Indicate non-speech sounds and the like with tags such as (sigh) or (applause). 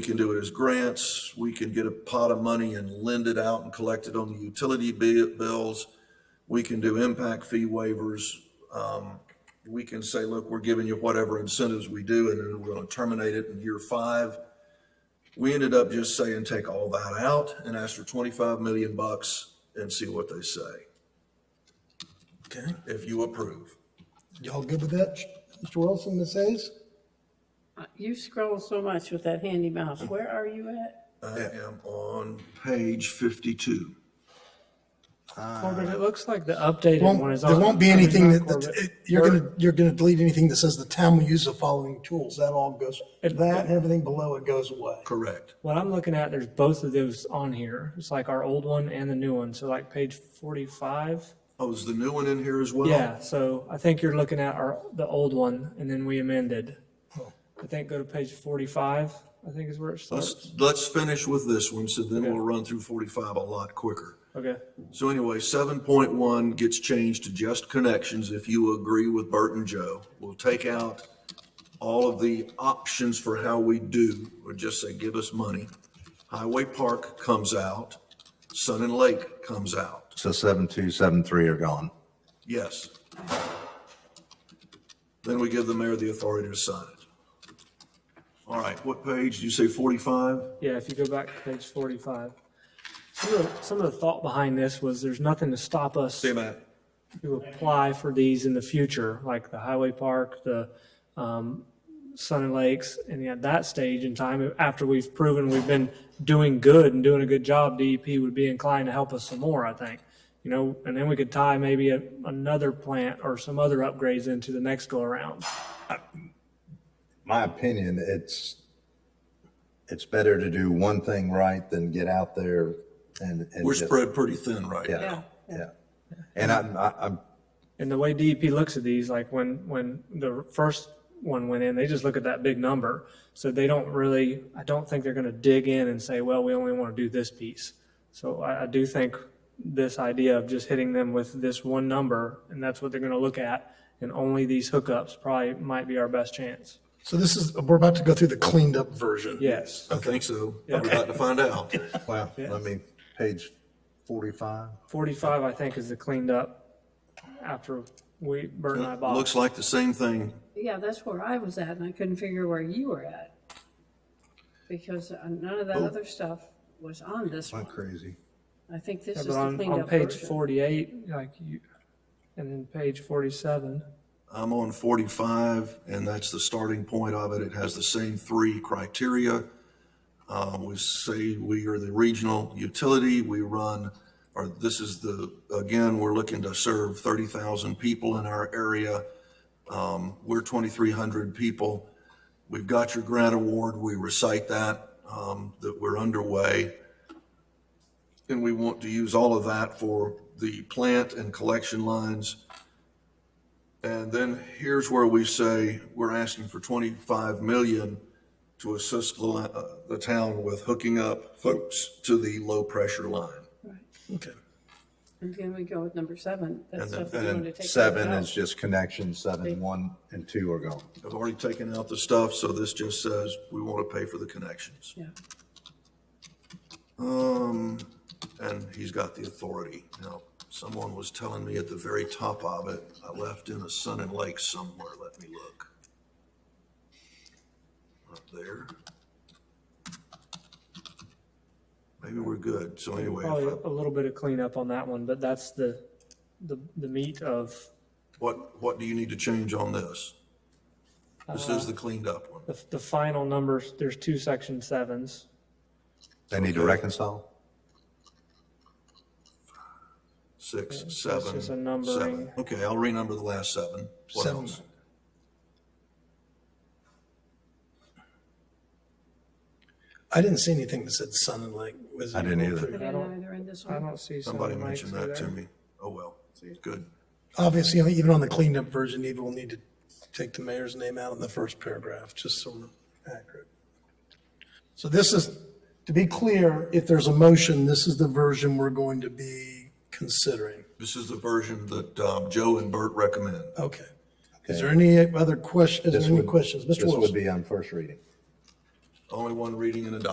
We can do it as grants, we can get a pot of money and lend it out and collect it on the utility bi- bills. We can do impact fee waivers. Um, we can say, look, we're giving you whatever incentives we do and then we're gonna terminate it in year five. We ended up just saying, take all that out and ask for twenty-five million bucks and see what they say, Okay, if you approve. y'all good with that, Mr. Wilson, Ms. Hayes? Uh, You scroll so much with that handy mouse. Where are you at? I am on page fifty-two. Corbett, it looks like the updated Won't- one is. There on- won't be I mean, anything not that, that- Corbett. it- you're gonna, you're gonna delete anything that says the town will use the following tools. That all goes, It- that and everything below it goes away. Correct. What I'm looking at, there's both of those on here. It's like our old one and the new one. So like page 45. Oh, is the new one in here as well? Yeah, so I think you're looking at our, the old one and then we amended. Oh. I think go to page 45, I think is where it starts. Let's, let's finish with this one, so then we'll run through forty-five a lot quicker. Okay, So anyway, seven point one gets changed to just connections, if you agree with Bert and Joe. We'll take out all of the options for how we do, or just say, give us money. Highway Park comes out, Sun and Lake comes out, So seven two, seven three are gone. yes. Then we give the mayor the authority to sign it. All right, what page, did you say forty-five? yeah, if you go back to page 45. Some of, the- some of the thought behind this was there's nothing to stop us Matt. to apply for these in the future, like the highway park, the um, Sun and Lakes, and at that stage in time, after we've proven we've been doing good and doing a good job, DEP would be inclined to help us some more, I think. You know, and then we could tie maybe a- another plant or some other upgrades into the next go-around. My opinion, it's, it's better to do one thing right than get out there and. and We're just- spread pretty thin right now. Yeah, yeah. And I'm, I- I'm, And the way DEP looks at these, like when, when the first one went in, they just look at that big number. So they don't really, I don't think they're gonna dig in and say, well, we only wanna do this piece. So I, I do think this idea of just hitting them with this one number, and that's what they're gonna look at, and only these hookups probably might be our best chance. So this is, we're about to go through the cleaned up version. Yes. I think so. We're about to find (laughs) out. wow, let me, page forty-five. Forty-five, I think, is the cleaned up after we, Bert and I bought. Looks like the same thing. Yeah, that's where I was at and I couldn't figure where you were at. Because uh, none of that other stuff was on this I'm one. crazy. I think this Yeah, is But the on, cleaned on up page version. forty-eight, like you, and then page forty-seven. I'm on 45, and that's the starting point of it. It has the same three criteria. Uh, We say we are the regional utility, we run, or this is the, again, we're looking to serve 30,000 people in our area. Um, We're 2,300 people. We've got your grant award, we recite that, um, that we're underway. And we want to use all of that for the plant and collection lines. And then here's where we say we're asking for 25 million to assist the, uh, the town with hooking up folks to the low pressure line. Okay. And then we go with number seven. And That then- stuff we and then wanted to take. Seven out. is just connection, seven, one and two are gone. I've already taken out the stuff, so this just says we want to pay for the connections. Yeah. Um, and he's got the authority. Now, someone was telling me at the very top of it, I left in a Sun and Lake somewhere. Let me look. Up there. Maybe we're good. So anyway, if Probably I- a little bit of cleanup on that one, but that's the, the, the meat of what, what do you need to change on this? This Uh, is the cleaned up one. the, the final numbers. There's two section sevens. They need to reconcile? Six, seven, just a seven. numbering. Okay, I'll renumber the last seven. What Seven. else? I didn't see anything that said sun and lake. Was I didn't either. I don't- didn't either in this I one. don't see. Somebody seven mentioned lakes that to either. me. Oh, well, good. Obviously, even on the cleaned up version, Eva will need to take the mayor's name out in the first paragraph, just so we're accurate. So this is, to be clear, if there's a motion, this is the version we're going to be considering. This is the version that um, Joe and Bert recommend. Okay. Is there any other question, is This there any would- questions? Mr. This would Wilson? be on first reading. only one reading and adopting.